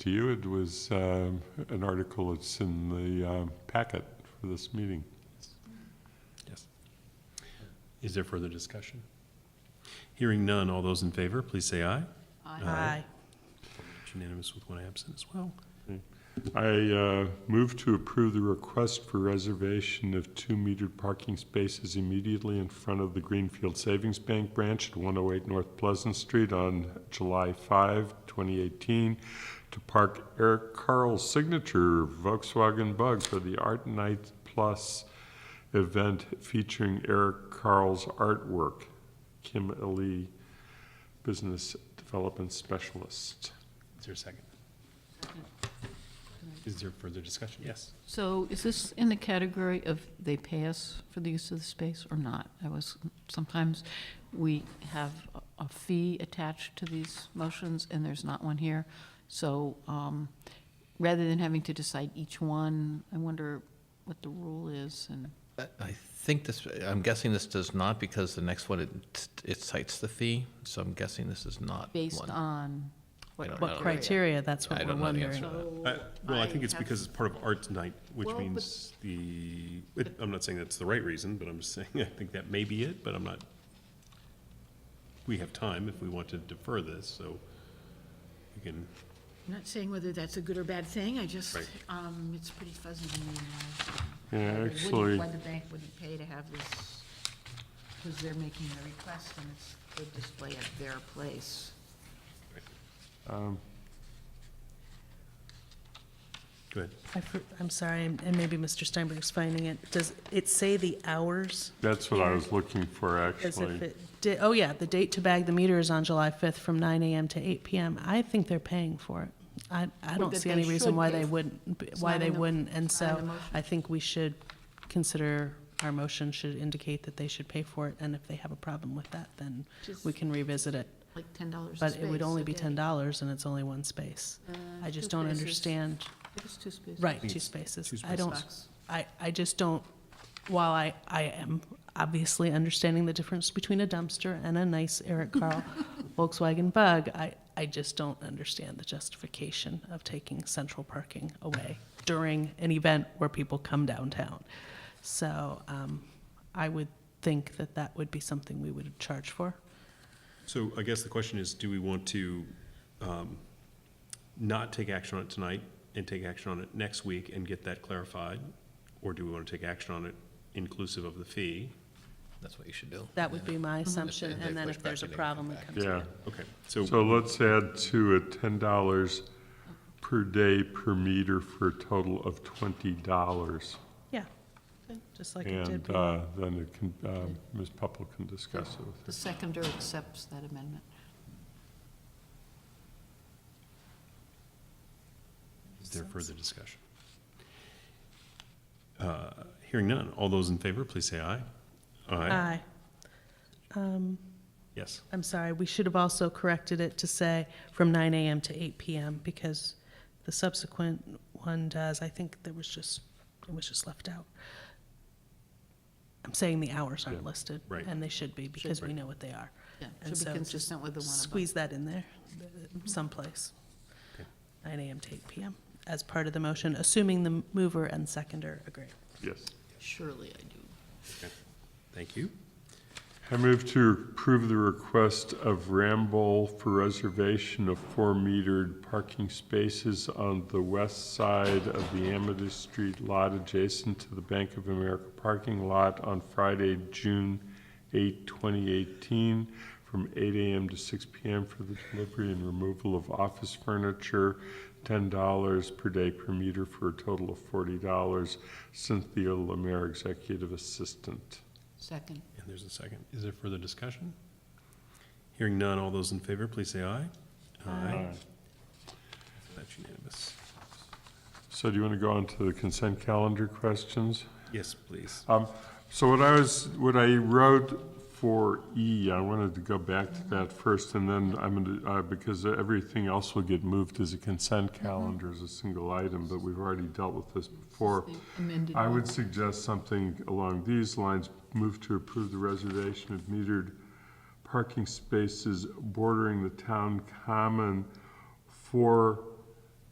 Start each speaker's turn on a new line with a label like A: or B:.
A: to you. It was um, an article that's in the um, packet for this meeting.
B: Yes. Is there further discussion? Hearing none, all those in favor, please say aye. Aye. It's Unanimous with one absent as well.
A: I uh, move to approve the request for reservation of two metered parking spaces immediately in front of the Greenfield Savings Bank branch at 108 North Pleasant Street on July 5, 2018, to park Eric Carl's signature Volkswagen Bug for the Art Night Plus event featuring Eric Carl's artwork. Kim Ali, Business Development Specialist.
B: Is there a second? Is there further discussion? Yes.
C: So is this in the category of they pay us for the use of the space or not? I was, sometimes we have a- a fee attached to these motions, and there's not one here. So um, rather than having to decide each one, I wonder what the rule is, and
D: I I think this, I'm guessing this does not, because the next one, it, it cites the fee, so I'm guessing this is not
C: based
D: one.
C: on
D: I
C: what
D: don't
C: what
D: know.
E: Criteria, that's
D: I
E: what we're
D: don't know the answer
E: wondering.
D: to that.
B: Uh, Well, I think it's because it's part of Arts Night, which
C: Well, but-
B: means the, it- I'm not saying that's the right reason, but I'm just saying, I think that may be it, but I'm not. We have time if we want to defer this, so we can,
C: I'm not saying whether that's a good or bad thing, I just,
B: Right.
C: um, it's pretty fuzzy to me now.
A: Yeah,
C: Why
A: actually.
C: Why the bank wouldn't pay to have this, because they're making the request and it's the display at their place.
B: go ahead.
E: I for- I'm sorry, and and maybe Mr. Steinberg's finding it. Does it say the hours?
A: That's what I was looking for,
E: As if
A: actually.
E: it did, oh yeah, the date to bag the meter is on July 5th from 9 AM to 8 PM. I think they're paying for it. I, I don't
C: that
E: see
C: they
E: any
C: should
E: reason why
C: pay
E: they
C: for-
E: wouldn't, b-
C: It's
E: why
C: not
E: they
C: in the-
E: wouldn't. And
C: it's not in the
E: so
C: motion.
E: I think we should consider, our motion should indicate that they should pay for it. And if they have a problem with that, then
C: Just-
E: we can revisit it.
C: Like ten dollars
E: But it would only be $10 and it's only one space.
C: Uh,
E: I just don't understand.
C: It's two spaces.
E: Right, two spaces.
B: two
E: I don't,
C: spaces.
E: I, I just don't, while I, I am obviously understanding the difference between a dumpster and a nice Eric Carl Volkswagen Bug, I, I just don't understand the justification of taking central parking away during an event where people come downtown. So, um, I would think that that would be something we would charge for.
B: So I guess the question is, do we want to um, not take action on it tonight and take action on it next week and get that clarified? Or do we want to take action on it inclusive of the fee?
D: That's what you should do.
E: That would be my
D: If-
E: assumption,
D: if they
E: and then
D: push
E: if there's a
D: back, they would
E: problem,
D: come
E: it
D: back.
E: comes.
A: Yeah,
B: Okay, so,
A: so let's add to it ten dollars per day per meter for a total of twenty dollars.
E: Yeah, just like it did.
A: And
E: before.
A: uh, then it can, um, Ms. Pupple can discuss it
C: The
A: with her.
C: seconder accepts that amendment.
B: is there further discussion? Uh, Hearing none, all those in favor, please say aye.
E: Aye.
B: Yes,
E: I'm sorry, we should have also corrected it to say from 9 AM to 8 PM, because the subsequent one does, I think there was just, it was just left out. I'm saying the hours aren't listed.
B: right.
E: And they should be, because we
B: Right.
E: know what they are.
C: Yeah,
E: And
C: should
E: so
C: be
E: just
C: consistent with the one above. Mm-hmm.
E: Squeeze that in there uh, someplace. 9 AM to 8 PM, as part of the motion, assuming the mover and seconder agree.
A: Yes.
C: Surely I do.
B: thank you.
A: I move to approve the request of Ramble for reservation of four metered parking spaces on the west side of the Amethyst Street lot adjacent to the Bank of America parking lot on Friday, June 8, 2018, from 8 a.m. to 6 p.m. for the delivery and removal of office furniture, $10 per day per meter for a total of $40. Cynthia Lemare, Executive Assistant.
C: Second.
B: And there's a second. Is there further discussion? Hearing none, all those in favor, please say aye. Aye. That's unanimous.
A: So do you want to go on to the consent calendar questions?
B: Yes, please.
A: Um, So what I was, what I wrote for E, I wanted to go back to that first, and then I'm going to, because everything else will get moved as a consent calendar as a single item, but we've already dealt with this before.
C: The amended
A: I
C: one.
A: would suggest something along these lines, move to approve the reservation of metered parking spaces bordering the town common for